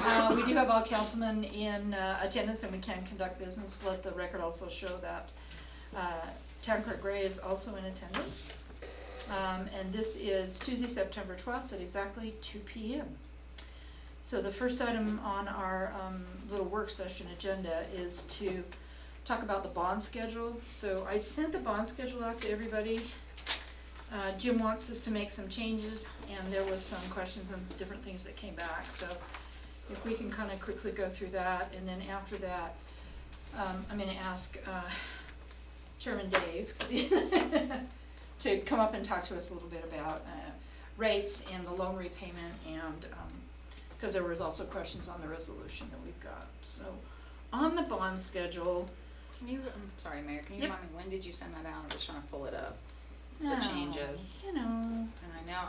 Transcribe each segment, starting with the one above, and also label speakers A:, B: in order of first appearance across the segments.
A: Uh, do have all councilmen in uh, attendance and we can conduct business, let the record also show that. Uh, Town clerk Gray is also in attendance. Um, and this is Tuesday, September twelfth at exactly two P M. So the first item on our, um, little work session agenda is to talk about the bond schedule. So I sent the bond schedule out to everybody. Uh, Jim wants us to make some changes, and there was some questions and different things that came back, so if we can kinda quickly go through that, and then after that, um, I'm gonna ask, uh, Chairman Dave to come up and talk to us a little bit about, uh, rates and the loan repayment and, um, cause there was also questions on the resolution that we've got, so. On the bond schedule,
B: Can you, I'm sorry, Mayor, can you
A: Yep.
B: remind me, when did you send that out? I'm just trying to pull it up. The
A: oh,
B: changes.
A: You know,
B: And I know.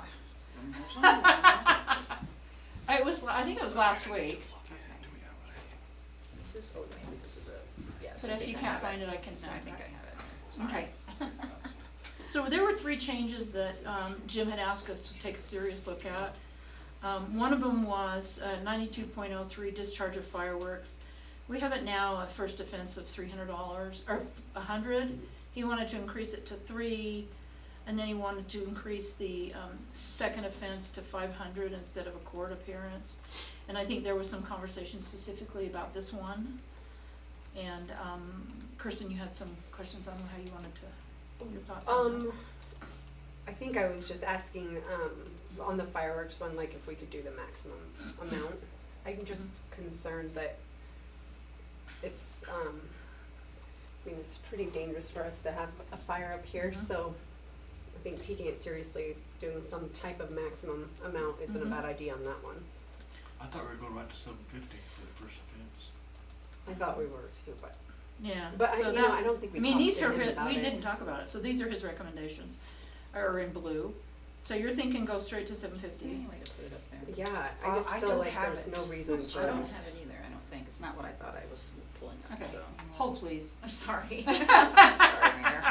B: Oh,
A: it was, la- I think it was last week,
B: maybe this is it. Yes,
A: but
B: I
A: if
B: think
A: you
B: I
A: can't
B: have
A: find it, I can
B: No, I
A: send
B: think I have it.
A: Okay. So there were three changes that um, Jim had asked us to take a serious look at. Um, One of them was ninety-two point oh three discharge of fireworks. We have it now, a first offense of three hundred dollars, or a hundred. He wanted to increase it to three, and then he wanted to increase the um, second offense to five hundred instead of a court appearance. And I think there was some conversation specifically about this one. And um, Kirsten, you had some questions on how you wanted to, your thoughts on that.
C: Um, I think I was just asking, um, on the fireworks one, like if we could do the maximum amount. I'm just concerned that it's, um, I mean, it's pretty dangerous for us to have a fire up here,
A: Mhm.
C: so I think taking it seriously, doing some type of maximum amount isn't a
A: Mhm.
C: bad idea on that one.
D: I thought we were going right to seven fifty for the first offense.
C: I thought we were too, but,
A: Yeah,
C: but I,
A: so
C: you
A: that-
C: know, I don't think
A: I
C: we
A: mean,
C: talked
A: these
C: to
A: are,
C: him
A: his-
C: about
A: we didn't
C: it.
A: talk about it, so these are his recommendations, are in blue. So you're thinking go straight to seven fifty?
B: Anyway, to put it up there.
C: Yeah,
E: Uh,
C: I just
E: I
C: feel
E: don't
C: like
E: have
C: there's
E: it.
C: no reason for us.
B: I don't have it either, I don't think. It's not what I thought I was pulling up,
A: Okay,
B: so.
A: hold please,
B: I'm sorry. Sorry, Mayor.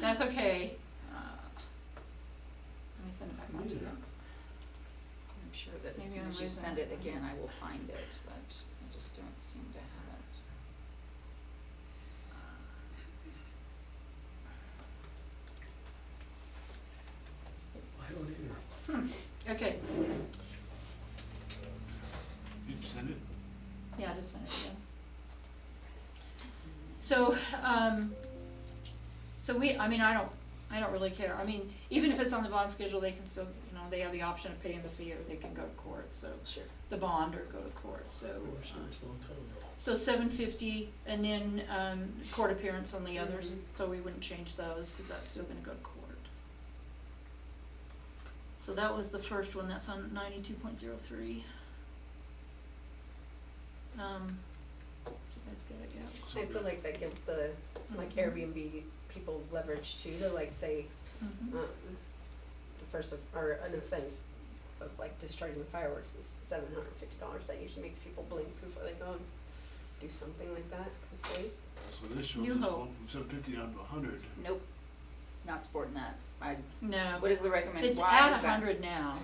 A: that's okay. Uh, Let me send it back on to you.
B: I'm sure that
A: Maybe
B: as soon
A: I'm
B: as you
A: losing
B: send
A: it.
B: it again, I will find it, but I just don't seem to have it.
F: I don't either.
A: Okay,
D: Did you send it?
A: yeah, just send it again. So, um, so we, I mean, I don't, I don't really care, I mean, even if it's on the bond schedule, they can still, you know, they have the option of paying the fee or they can go to court, so.
C: Sure.
A: The bond or go to court, so.
F: We were
A: um,
F: serious a long time ago.
A: So seven fifty, and then, um, court appearance on the others,
B: Mm-hmm.
A: so we wouldn't change those, cause that's still gonna go to court. So that was the first one, that's on ninety-two point zero three. Um, that's good, I guess.
D: So
C: I feel like that gives the, like Airbnb people leverage too, to like say,
A: Mhm.
B: Uh,
C: um, the first of, or an offense of like discharging fireworks is seven hundred and fifty dollars, that usually makes people blink before they go and do something like that, hopefully.
D: So this shows
A: You
D: us
A: hope.
D: going from seven fifty down to hundred.
B: Nope, not supporting that. I,
A: No,
B: what is the recommended,
A: it's
B: why
A: at
B: is that?
A: hundred now.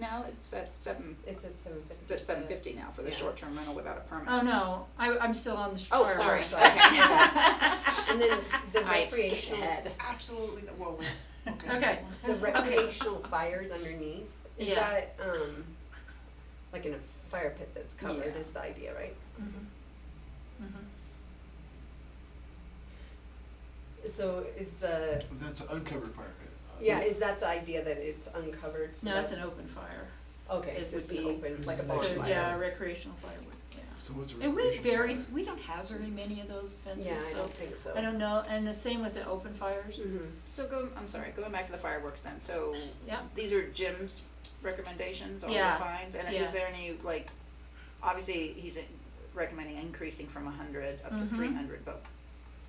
B: No, it's at seven,
C: It's at seven fifty.
B: it's at seven fifty now for the
C: Yeah.
B: short-term rental without a permit.
A: Oh, no, I, I'm still on the sh-
B: Oh, sorry,
A: fireworks.
C: And then the
B: I had skipped
C: recreational,
B: ahead.
E: Absolutely, no- well, we- okay.
A: Okay,
C: the recreational fires underneath, is
A: Yeah.
C: that, um, like in a fire pit that's covered
B: Yeah.
C: is the idea, right?
B: Mm-hmm.
A: mhm.
C: So is the,
D: But that's an uncovered fire pit. Uh,
C: yeah, is that the idea that it's uncovered, so
A: no, it's an
C: that's-
A: open fire,
C: Okay,
A: It would
C: just an
A: be-
C: open, like a
F: That's
C: bonfire.
A: so, yeah, recreational firewood, yeah.
D: So what's the
A: And we
D: recreational
A: very,
D: fire?
A: we don't have very many of those
C: Yeah,
A: offenses,
C: I
A: so,
C: don't think so.
A: I don't know, and the same with the open fires.
C: Mhm.
B: So go, I'm sorry, going back to the fireworks then, so
A: Yeah.
B: these are Jim's recommendations, all the
A: Yeah,
B: fines, and
A: yeah.
B: is there any, like, obviously, he's recommending increasing from a hundred up to
A: Mhm.
B: three hundred, but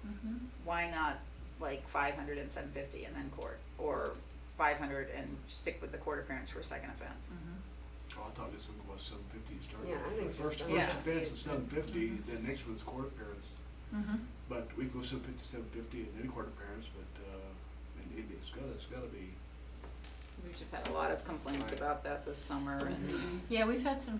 A: mm-hmm,
B: why not like five hundred and seven fifty and then court? Or five hundred and stick with the court appearance for a second offense?
A: mm-hmm,
D: Oh, I thought this one was seven fifty starting.
C: Yeah, I
D: with.
C: think
D: The First,
C: just
D: first
B: 750.
D: offense is seven fifty, then next one's court appearance.
A: Mm-hmm.
D: But we go seven fifty, seven fifty, and then court appearance, but, uh, and it- it's gotta, it's gotta be.
A: Mm.
B: We just had a lot of complaints
D: Right.
B: about that this summer and.
A: Yeah, we've had some